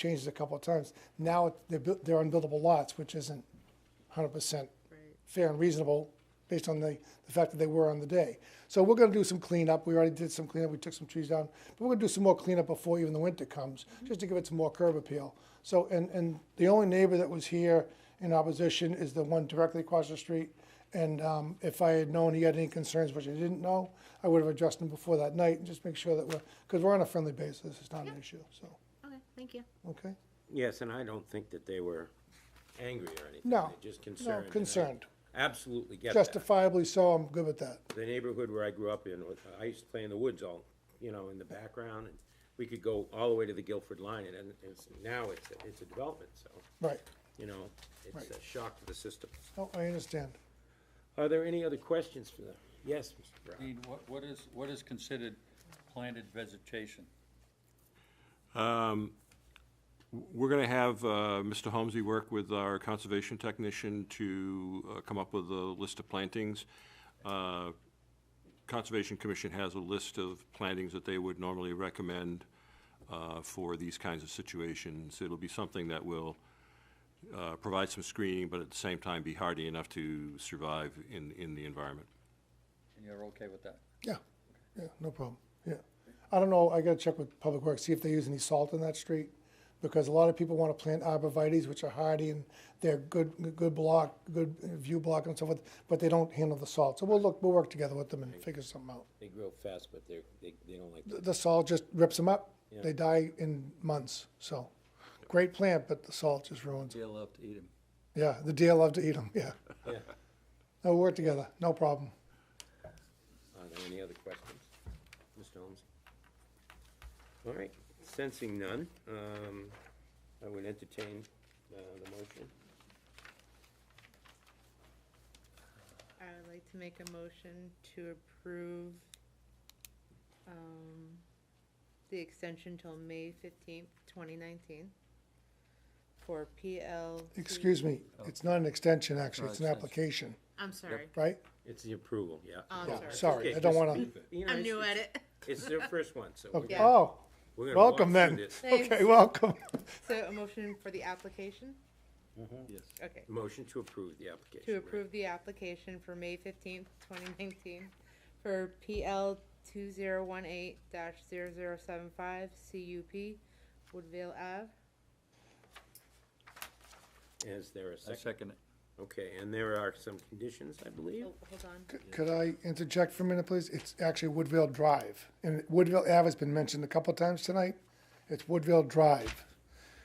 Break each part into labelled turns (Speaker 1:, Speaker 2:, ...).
Speaker 1: changed it a couple of times. Now it- they're, buil- they're unbuildable lots, which isn't hundred percent fair and reasonable based on the, the fact that they were on the day. So we're gonna do some cleanup. We already did some cleanup. We took some trees down. But we're gonna do some more cleanup before even the winter comes, just to give it some more curb appeal. So, and, and the only neighbor that was here in opposition is the one directly across the street. And um, if I had known he had any concerns, which I didn't know, I would have addressed him before that night and just make sure that we're, because we're on a friendly basis, it's not an issue, so,
Speaker 2: Okay, thank you.
Speaker 1: okay?
Speaker 3: Yes, and I don't think that they were angry or anything.
Speaker 1: No,
Speaker 3: They're just concerned.
Speaker 1: no,
Speaker 3: and I
Speaker 1: concerned.
Speaker 3: Absolutely get that.
Speaker 1: Justifiably so, I'm good with that.
Speaker 3: The neighborhood where I grew up in, with- I used to play in the woods all, you know, in the background, and we could go all the way to the Guilford line, and then it's, now it's, it's a development, so,
Speaker 1: Right.
Speaker 3: you know, it's a
Speaker 1: Right.
Speaker 3: shock to the system.
Speaker 1: No, I understand.
Speaker 3: Are there any other questions for them? Yes, Mr. Brown?
Speaker 4: Dean, what, what is, what is considered planted vegetation?
Speaker 5: We're going to have uh, Mr. Holmesy work with our conservation technician to uh, come up with a list of plantings. Uh, Conservation Commission has a list of plantings that they would normally recommend uh, for these kinds of situations. It'll be something that will uh, provide some screening, but at the same time be hardy enough to survive in, in the environment.
Speaker 4: And you're okay with that?
Speaker 1: Yeah, yeah, no problem, yeah. I don't know, I gotta check with Public Works, see if they use any salt in that street, because a lot of people wanna plant arborvitae's, which are hardy, and they're good, good block, good view block and so forth, but they don't handle the salt, so we'll look, we'll work together with them and figure something out.
Speaker 3: They grow fast, but they're, they, they don't like,
Speaker 1: The- The salt just rips them up,
Speaker 3: Yeah.
Speaker 1: they die in months, so, great plant, but the salt just ruins it.
Speaker 4: They love to eat them.
Speaker 1: Yeah, the deer love to eat them, yeah,
Speaker 3: yeah.
Speaker 1: no, we'll work together, no problem.
Speaker 3: Are there any other questions? Mr. Holmes? All right, sensing none, um, I would entertain, uh, the motion.
Speaker 2: I would like to make a motion to approve um, the extension till May fifteenth, twenty nineteen for PL.
Speaker 1: Excuse me, it's not an extension, actually,
Speaker 4: Not
Speaker 1: it's an
Speaker 4: extension.
Speaker 1: application,
Speaker 2: I'm sorry.
Speaker 1: right?
Speaker 3: It's the approval, yeah.
Speaker 2: Oh, I'm
Speaker 1: Yeah,
Speaker 2: sorry.
Speaker 1: sorry,
Speaker 3: Okay,
Speaker 1: I don't
Speaker 3: just-
Speaker 1: wanna,
Speaker 3: You know,
Speaker 2: I'm
Speaker 3: it's-
Speaker 2: new at
Speaker 3: it's-
Speaker 2: it.
Speaker 3: It's their first one, so we're
Speaker 1: okay.
Speaker 3: gonna,
Speaker 1: oh,
Speaker 3: we're gonna walk
Speaker 1: welcome
Speaker 3: through
Speaker 1: then.
Speaker 3: this.
Speaker 1: Okay,
Speaker 2: Thanks.
Speaker 1: welcome.
Speaker 2: So a motion for the application?
Speaker 4: Yes.
Speaker 2: Okay.
Speaker 3: Motion to approve the application.
Speaker 2: To
Speaker 3: right.
Speaker 2: approve the application for May fifteenth, twenty nineteen for PL two zero one eight dash zero zero seven five CUP Woodville Ave.
Speaker 3: Is there a
Speaker 4: I
Speaker 3: second?
Speaker 4: second it.
Speaker 3: Okay, and there are some conditions, I believe?
Speaker 2: Oh, hold on.
Speaker 1: C- Could I interject for a minute, please? It's actually Woodville Drive, and Woodville Ave has been mentioned a couple times tonight. It's Woodville Drive.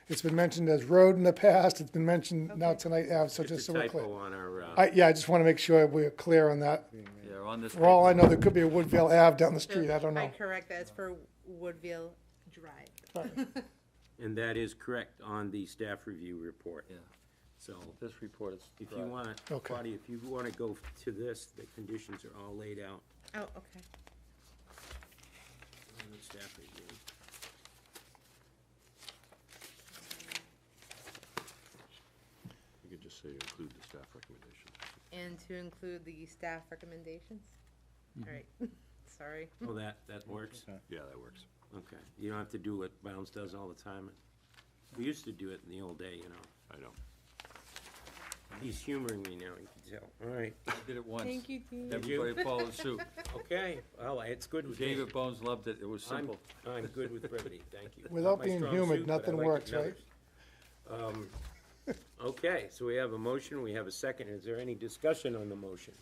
Speaker 1: It's been mentioned as road in the past, it's been mentioned now tonight Ave, so just
Speaker 3: It's
Speaker 1: so
Speaker 3: a
Speaker 1: we're clear.
Speaker 3: typo on our, uh,
Speaker 1: I, yeah, I just wanna make sure we're clear on that.
Speaker 4: Yeah, on this.
Speaker 1: For all I
Speaker 4: paper.
Speaker 1: know, there could be a Woodville Ave down the
Speaker 2: So
Speaker 1: street, I don't
Speaker 2: I
Speaker 1: know.
Speaker 2: correct that, it's for Woodville Drive.
Speaker 3: and that is correct on the staff review report.
Speaker 4: Yeah,
Speaker 3: So
Speaker 4: this report is.
Speaker 3: if you
Speaker 4: right.
Speaker 3: want,
Speaker 1: Okay.
Speaker 3: Claudia, if you want to go to this, the conditions are all laid out
Speaker 2: Oh, okay.
Speaker 3: on the staff review.
Speaker 5: You could just say include the staff recommendation.
Speaker 2: And to include the staff recommendations? All right, sorry.
Speaker 3: Oh, that, that works?
Speaker 5: Yeah, that works.
Speaker 3: Okay. You don't have to do what Bounds does all the time. We used to do it in the old day, you know.
Speaker 5: I know.
Speaker 3: He's humoring me now, you can tell. All right,
Speaker 4: I Did it once.
Speaker 2: Thank you, Dean.
Speaker 4: Everybody followed suit.
Speaker 3: okay. Well, it's good with me.
Speaker 4: David Bones loved it. It was
Speaker 3: I'm,
Speaker 4: simple.
Speaker 3: I'm good with brevity, thank you.
Speaker 1: Without
Speaker 3: Not my
Speaker 1: being
Speaker 3: strong
Speaker 1: human,
Speaker 3: suit, but I
Speaker 1: nothing
Speaker 3: like it
Speaker 1: works,
Speaker 3: in
Speaker 1: right?
Speaker 3: others. Um, Okay, so we have a motion, we have a second. Is there any discussion on the motion?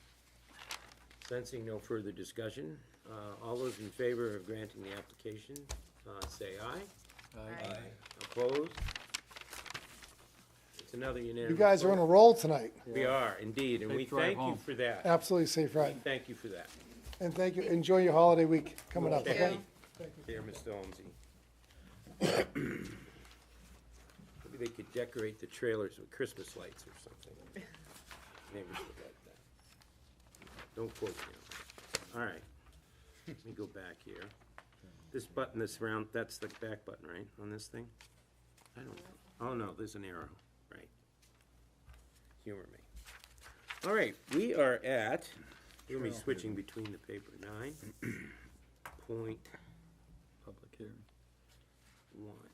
Speaker 3: Sensing no further discussion, uh, all those in favor of granting the application, uh, say aye.
Speaker 2: Aye.
Speaker 3: Opposed? It's another unanimous.
Speaker 1: You guys are on a roll tonight,
Speaker 3: vote. We are, indeed, and
Speaker 4: Safe
Speaker 3: we
Speaker 4: drive
Speaker 3: thank you
Speaker 4: home.
Speaker 3: for that.
Speaker 1: absolutely safe ride.
Speaker 3: Thank you for that.
Speaker 1: And thank you, enjoy your holiday week coming up,
Speaker 3: Okay.
Speaker 1: okay?
Speaker 3: Dear Mr. Holmesy. Maybe they could decorate the trailers with Christmas lights or something. Neighbors would like that. Don't quote me. on that. All right. Let me go back here. This button, this round, that's the back button, right, on this thing? I don't know. Oh, no, there's an arrow, right. Humor me. All right, we are at, you'll be switching between the paper, nine point
Speaker 4: Public hearing.
Speaker 3: one.